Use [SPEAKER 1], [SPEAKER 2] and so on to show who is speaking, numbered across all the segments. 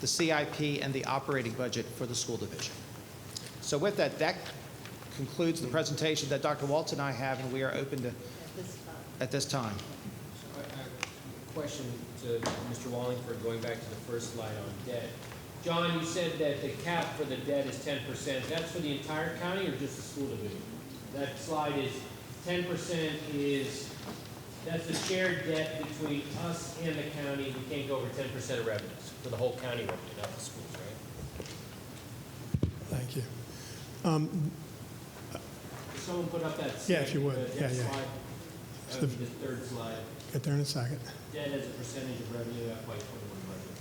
[SPEAKER 1] the CIP, and the operating budget for the school division. So with that, that concludes the presentation that Dr. Waltz and I have, and we are open to, at this time.
[SPEAKER 2] I- I- Question to Mr. Wallingford, going back to the first slide on debt. John, you said that the cap for the debt is ten percent. That's for the entire county or just the school division? That slide is, ten percent is, that's the shared debt between us and the county. We can't go over ten percent of revenues for the whole county revenue, not the schools, right?
[SPEAKER 3] Thank you.
[SPEAKER 2] Could Someone put up that.
[SPEAKER 3] Yeah, if you would.
[SPEAKER 2] uh,
[SPEAKER 3] Yeah,
[SPEAKER 2] that
[SPEAKER 3] yeah.
[SPEAKER 2] slide, uh,
[SPEAKER 3] So
[SPEAKER 2] The
[SPEAKER 3] the-
[SPEAKER 2] third slide,
[SPEAKER 3] Get there in a second.
[SPEAKER 2] debt as a percentage of revenue FY twenty-one budget.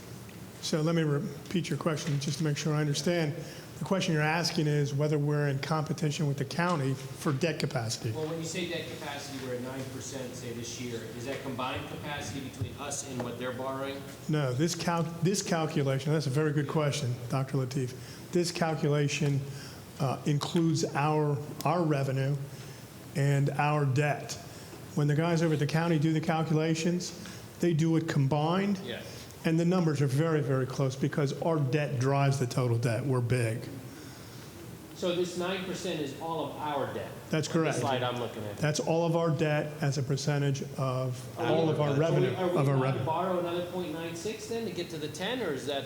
[SPEAKER 3] So let me repeat your question, just to make sure I understand. The question you're asking is whether we're in competition with the county for debt capacity.
[SPEAKER 2] Well, when you say debt capacity, we're at nine percent, say, this year, is that combined capacity between us and what they're borrowing?
[SPEAKER 3] No, this cal, this calculation, that's a very good question, Dr. Latif. This calculation uh, includes our, our revenue and our debt. When the guys over at the county do the calculations, they do it combined.
[SPEAKER 2] Yes.
[SPEAKER 3] And the numbers are very, very close because our debt drives the total debt. We're big.
[SPEAKER 2] So this nine percent is all of our debt?
[SPEAKER 3] That's
[SPEAKER 2] On
[SPEAKER 3] correct.
[SPEAKER 2] The slide I'm looking at.
[SPEAKER 3] That's all of our debt as a percentage of all of our
[SPEAKER 2] Are we-
[SPEAKER 3] revenue, of our
[SPEAKER 2] Are we allowed to
[SPEAKER 3] revenue.
[SPEAKER 2] borrow another point nine six then to get to the ten, or is that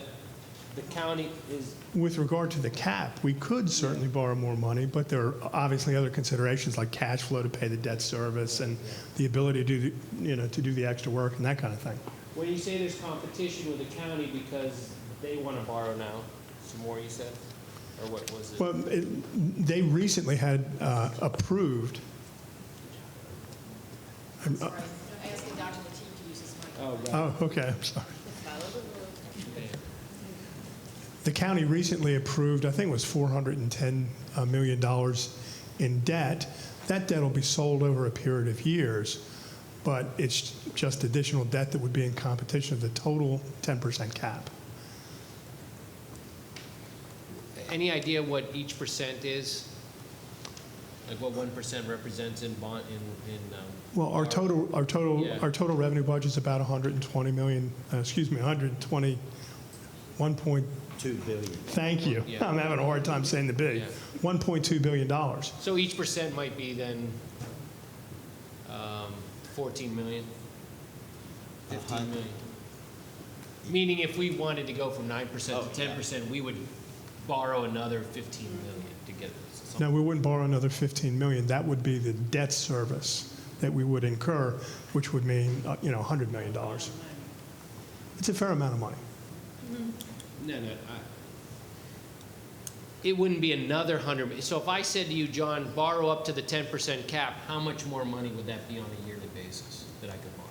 [SPEAKER 2] the county is,
[SPEAKER 3] With regard to the cap, we could certainly borrow more money, but there are obviously other considerations like cash flow to pay the debt service and the ability to, do the- you know, to do the extra work and that kind of thing.
[SPEAKER 2] when you say there's competition with the county because they wanna borrow now, some more you said? Or what was it?
[SPEAKER 3] Well, it- they recently had uh, approved,
[SPEAKER 4] I'm sorry, I'm asking Dr. Latif to use his mic.
[SPEAKER 2] Oh, right.
[SPEAKER 3] oh, okay, I'm sorry.
[SPEAKER 2] Okay.
[SPEAKER 3] The county recently approved, I think it was $410 uh, million in debt. That debt will be sold over a period of years, but it's just additional debt that would be in competition of the total 10% cap.
[SPEAKER 2] Any idea what each percent is? Like what one percent represents in bond, in, in, um?
[SPEAKER 3] Well, our total, our total,
[SPEAKER 2] Yeah.
[SPEAKER 3] our total revenue budget's about 120 million, uh, excuse me, 120, 1 point,
[SPEAKER 5] Two billion.
[SPEAKER 3] thank you.
[SPEAKER 2] Yeah.
[SPEAKER 3] I'm having a hard time saying the big,
[SPEAKER 2] Yeah.
[SPEAKER 3] $1.2 billion. dollars.
[SPEAKER 2] So each percent might be then, um, fourteen million, fifteen million? Meaning if we wanted to go from nine percent to ten percent, we would borrow another fifteen million to get this.
[SPEAKER 3] No, we wouldn't borrow another 15 million. That would be the debt service that we would incur, which would mean, uh, you know, $100 million. It's a fair amount of money.
[SPEAKER 2] No, no, I. It wouldn't be another hundred, so if I said to you, John, borrow up to the ten percent cap, how much more money would that be on a yearly basis that I could borrow?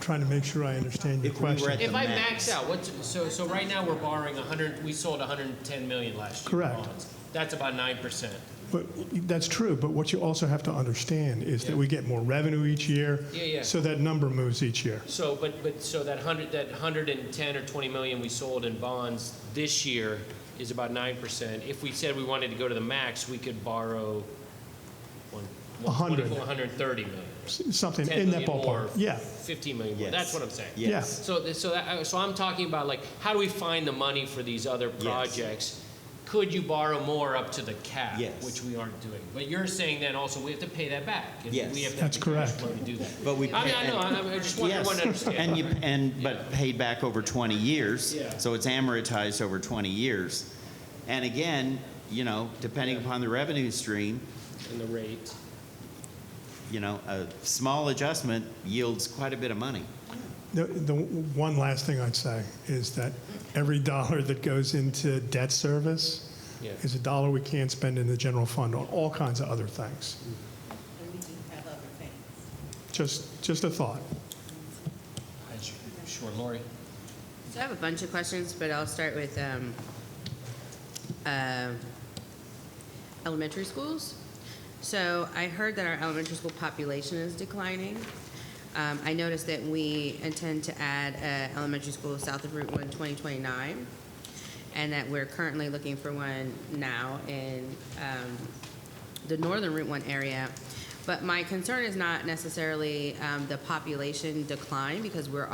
[SPEAKER 3] Trying to make sure I understand your
[SPEAKER 5] If we were
[SPEAKER 3] question.
[SPEAKER 5] at-
[SPEAKER 2] If I
[SPEAKER 5] max.
[SPEAKER 2] max out, what's, so, so right now, we're borrowing a hundred, we sold hundred and ten million last year. in
[SPEAKER 3] Correct.
[SPEAKER 2] bonds. That's about nine percent.
[SPEAKER 3] But that's true, but what you also have to understand is that
[SPEAKER 2] Yeah.
[SPEAKER 3] we get more revenue each year.
[SPEAKER 2] Yeah, yeah.
[SPEAKER 3] So that number moves each year.
[SPEAKER 2] So, but, but, so that hundred, that hundred and ten or twenty million we sold in bonds this year is about nine percent. If we said we wanted to go to the max, we could borrow one,
[SPEAKER 3] A
[SPEAKER 2] one
[SPEAKER 3] hundred.
[SPEAKER 2] twenty-four, hundred and thirty million.
[SPEAKER 3] S- Something in that ballpark. Yeah,
[SPEAKER 2] Fifteen million more,
[SPEAKER 5] Yes.
[SPEAKER 2] that's what I'm saying.
[SPEAKER 5] Yes.
[SPEAKER 2] So, th- so that, so I'm talking about like, how do we find the money for these other projects? Could you borrow more up to the cap?
[SPEAKER 5] Yes.
[SPEAKER 2] Which we aren't doing. But you're saying then also we have to pay that back. and
[SPEAKER 5] Yes.
[SPEAKER 2] We have to have the
[SPEAKER 3] That's
[SPEAKER 2] cash
[SPEAKER 3] correct.
[SPEAKER 2] flow to do that.
[SPEAKER 5] But we.
[SPEAKER 2] I mean, I know, I I just want everyone to
[SPEAKER 5] Yes, and
[SPEAKER 2] understand.
[SPEAKER 5] you, and, but paid back over 20 years.
[SPEAKER 2] Yeah.
[SPEAKER 5] So it's amortized over 20 years. And again, you know, depending upon the revenue stream,
[SPEAKER 2] And the rate.
[SPEAKER 5] you know, a small adjustment yields quite a bit of money.
[SPEAKER 3] The, the one last thing I'd say is that every dollar that goes into debt service
[SPEAKER 2] Yeah.
[SPEAKER 3] is a dollar we can't spend in the general fund on all kinds of other things.
[SPEAKER 4] And we do have other things.
[SPEAKER 3] Just, just a thought.
[SPEAKER 2] Sure, Lori.
[SPEAKER 6] So I have a bunch of questions, but I'll start with um, uh, elementary schools. So I heard that our elementary school population is declining. Um, I noticed that we intend to add an elementary school south of Route 1, 2029, and that we're currently looking for one now in um, the northern Route 1 area. But my concern is not necessarily um, the population decline, because we're